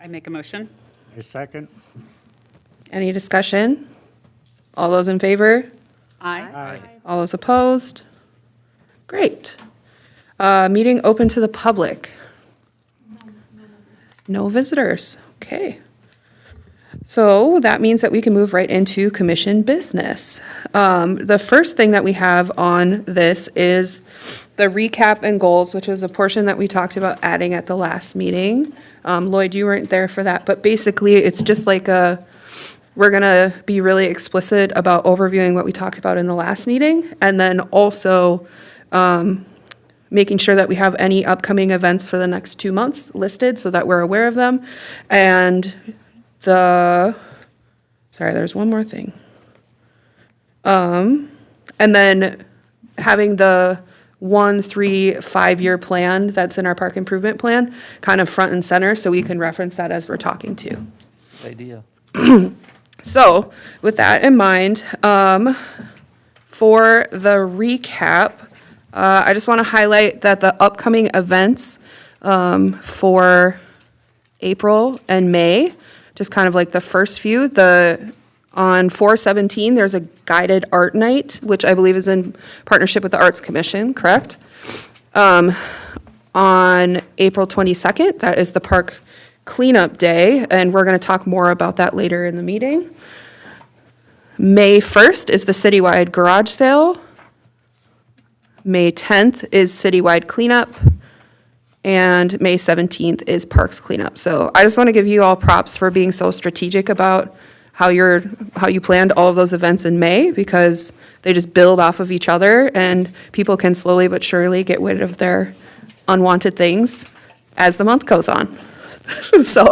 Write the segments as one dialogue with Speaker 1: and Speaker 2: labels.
Speaker 1: I make a motion.
Speaker 2: I second.
Speaker 3: Any discussion? All those in favor?
Speaker 1: Aye.
Speaker 2: Aye.
Speaker 3: All those opposed? Great. Uh, Meeting open to the public. No visitors. Okay. So that means that we can move right into commission business. Um, The first thing that we have on this is the recap and goals, which is a portion that we talked about adding at the last meeting. Um, Lloyd, you weren't there for that, but basically, it's just like a, we're going to be really explicit about overviewing what we talked about in the last meeting, and then also um, making sure that we have any upcoming events for the next two months listed so that we're aware of them. And the, sorry, there's one more thing. Um, and then having the one, three, five-year plan that's in our park improvement plan kind of front and center so we can reference that as we're talking to.
Speaker 4: Idea.
Speaker 3: So, with that in mind, um, for the recap, uh, I just want to highlight that the upcoming events um, for April and May, just kind of like the first few, the on 417, there's a guided art night, which I believe is in partnership with the Arts Commission, correct? Um, on April 22nd, that is the park cleanup day, and we're going to talk more about that later in the meeting. May 1st is the citywide garage sale. May 10th is citywide cleanup. And May 17th is parks cleanup. So I just want to give you all props for being so strategic about how you're, how you planned all of those events in May because they just build off of each other and people can slowly but surely get rid of their unwanted things as the month goes on. So,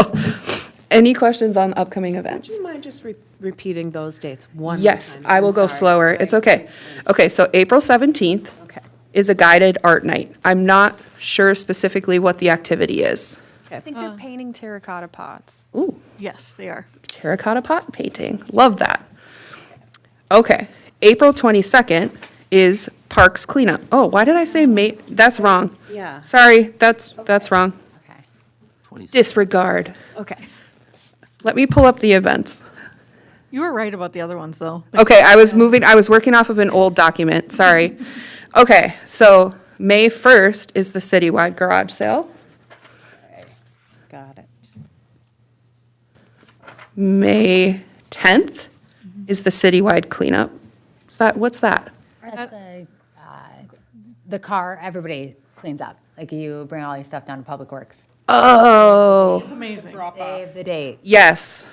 Speaker 3: any questions on upcoming events?
Speaker 5: Do you mind just re- repeating those dates one more time?
Speaker 3: Yes, I
Speaker 5: I'm
Speaker 3: will go
Speaker 5: sorry.
Speaker 3: slower. It's okay. Okay, so April 17th
Speaker 5: Okay,
Speaker 3: is a guided art night. I'm not sure specifically what the activity is.
Speaker 6: I think
Speaker 7: Uh.
Speaker 6: they're painting terracotta pots.
Speaker 3: Ooh,
Speaker 6: Yes, they are.
Speaker 3: terracotta pot painting. Love that. Okay, April 22nd is Parks cleanup. Oh, why did I say May? That's wrong.
Speaker 5: Yeah.
Speaker 3: Sorry, that's, that's wrong.
Speaker 5: okay,
Speaker 3: Disregard.
Speaker 5: okay.
Speaker 3: Let me pull up the events.
Speaker 6: You were right about the other ones, though.
Speaker 3: Okay, I was moving, I was working off of an old document, sorry. Okay, so May 1st is the citywide garage sale.
Speaker 5: Got it.
Speaker 3: May 10th is the citywide cleanup. Is that, what's that?
Speaker 8: That's the, uh, the car, everybody cleans up. Like you bring all your stuff down to Public Works.
Speaker 3: Oh,
Speaker 6: It's amazing.
Speaker 8: Save the date.
Speaker 3: yes.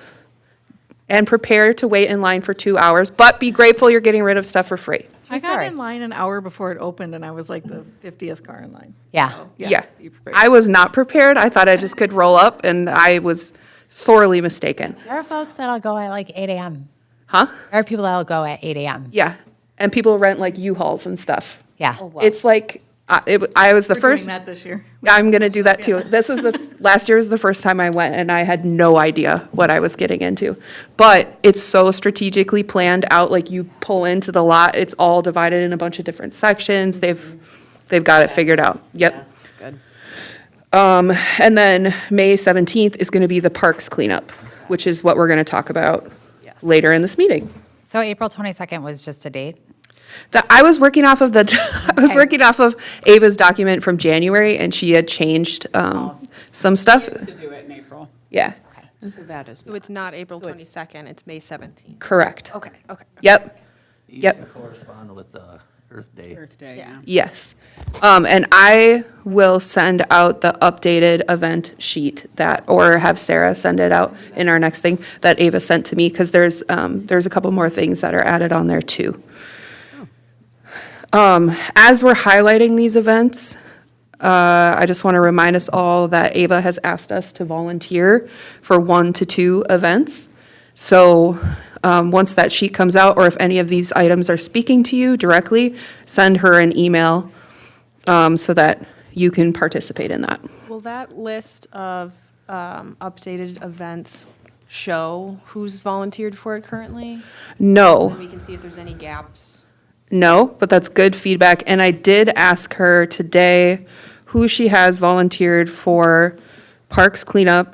Speaker 3: And prepare to wait in line for two hours, but be grateful you're getting rid of stuff for free.
Speaker 6: I got
Speaker 8: sorry.
Speaker 6: in line an hour before it opened, and I was like the 50th car in line.
Speaker 8: Yeah.
Speaker 3: Yeah.
Speaker 6: be prepared.
Speaker 3: I was not prepared. I thought I just could roll up and I was sorely mistaken.
Speaker 8: There are folks that'll go at like 8 AM.
Speaker 3: Huh?
Speaker 8: There are people that'll go at 8 AM.
Speaker 3: Yeah. And people rent like U-Hauls and stuff.
Speaker 8: Yeah.
Speaker 3: It's like, I, it, I was the
Speaker 6: We're doing
Speaker 3: first,
Speaker 6: that this year.
Speaker 3: I'm going to do that too. This was the, last year was the first time I went and I had no idea what I was getting into. But it's so strategically planned out, like you pull into the lot, it's all divided in a bunch of different sections. They've, they've got it figured out.
Speaker 5: Yeah,
Speaker 3: Yep.
Speaker 5: It's good.
Speaker 3: Um, and then May 17th is going to be the parks cleanup, which is what we're going to talk about
Speaker 5: Yes.
Speaker 3: later in this meeting.
Speaker 9: So April 22nd was just a date?
Speaker 3: That- I was working off of the, I was working off of Ava's document from January, and she had changed um, some stuff.
Speaker 1: To do it in April.
Speaker 3: Yeah,
Speaker 5: So that is.
Speaker 7: So it's not April
Speaker 5: So it's-
Speaker 7: 22nd, it's May 17th.
Speaker 3: correct.
Speaker 7: Okay, okay.
Speaker 3: Yep, Yep.
Speaker 4: You can correspond with uh, Earth Day.
Speaker 1: Earth Day, yeah.
Speaker 3: yes. Um, And I will send out the updated event sheet that, or have Sarah send it out in our next thing that Ava sent to me, because there's, um, there's a couple more things that are added on there, too. Um, As we're highlighting these events, uh, I just want to remind us all that Ava has asked us to volunteer for one to two events. So um, once that sheet comes out, or if any of these items are speaking to you directly, send her an email um, so that you can participate in that.
Speaker 7: Will that list of um, updated events show who's volunteered for it currently?
Speaker 3: No,
Speaker 7: And we can see if there's any gaps.
Speaker 3: No, but that's good feedback. And I did ask her today who she has volunteered for parks cleanup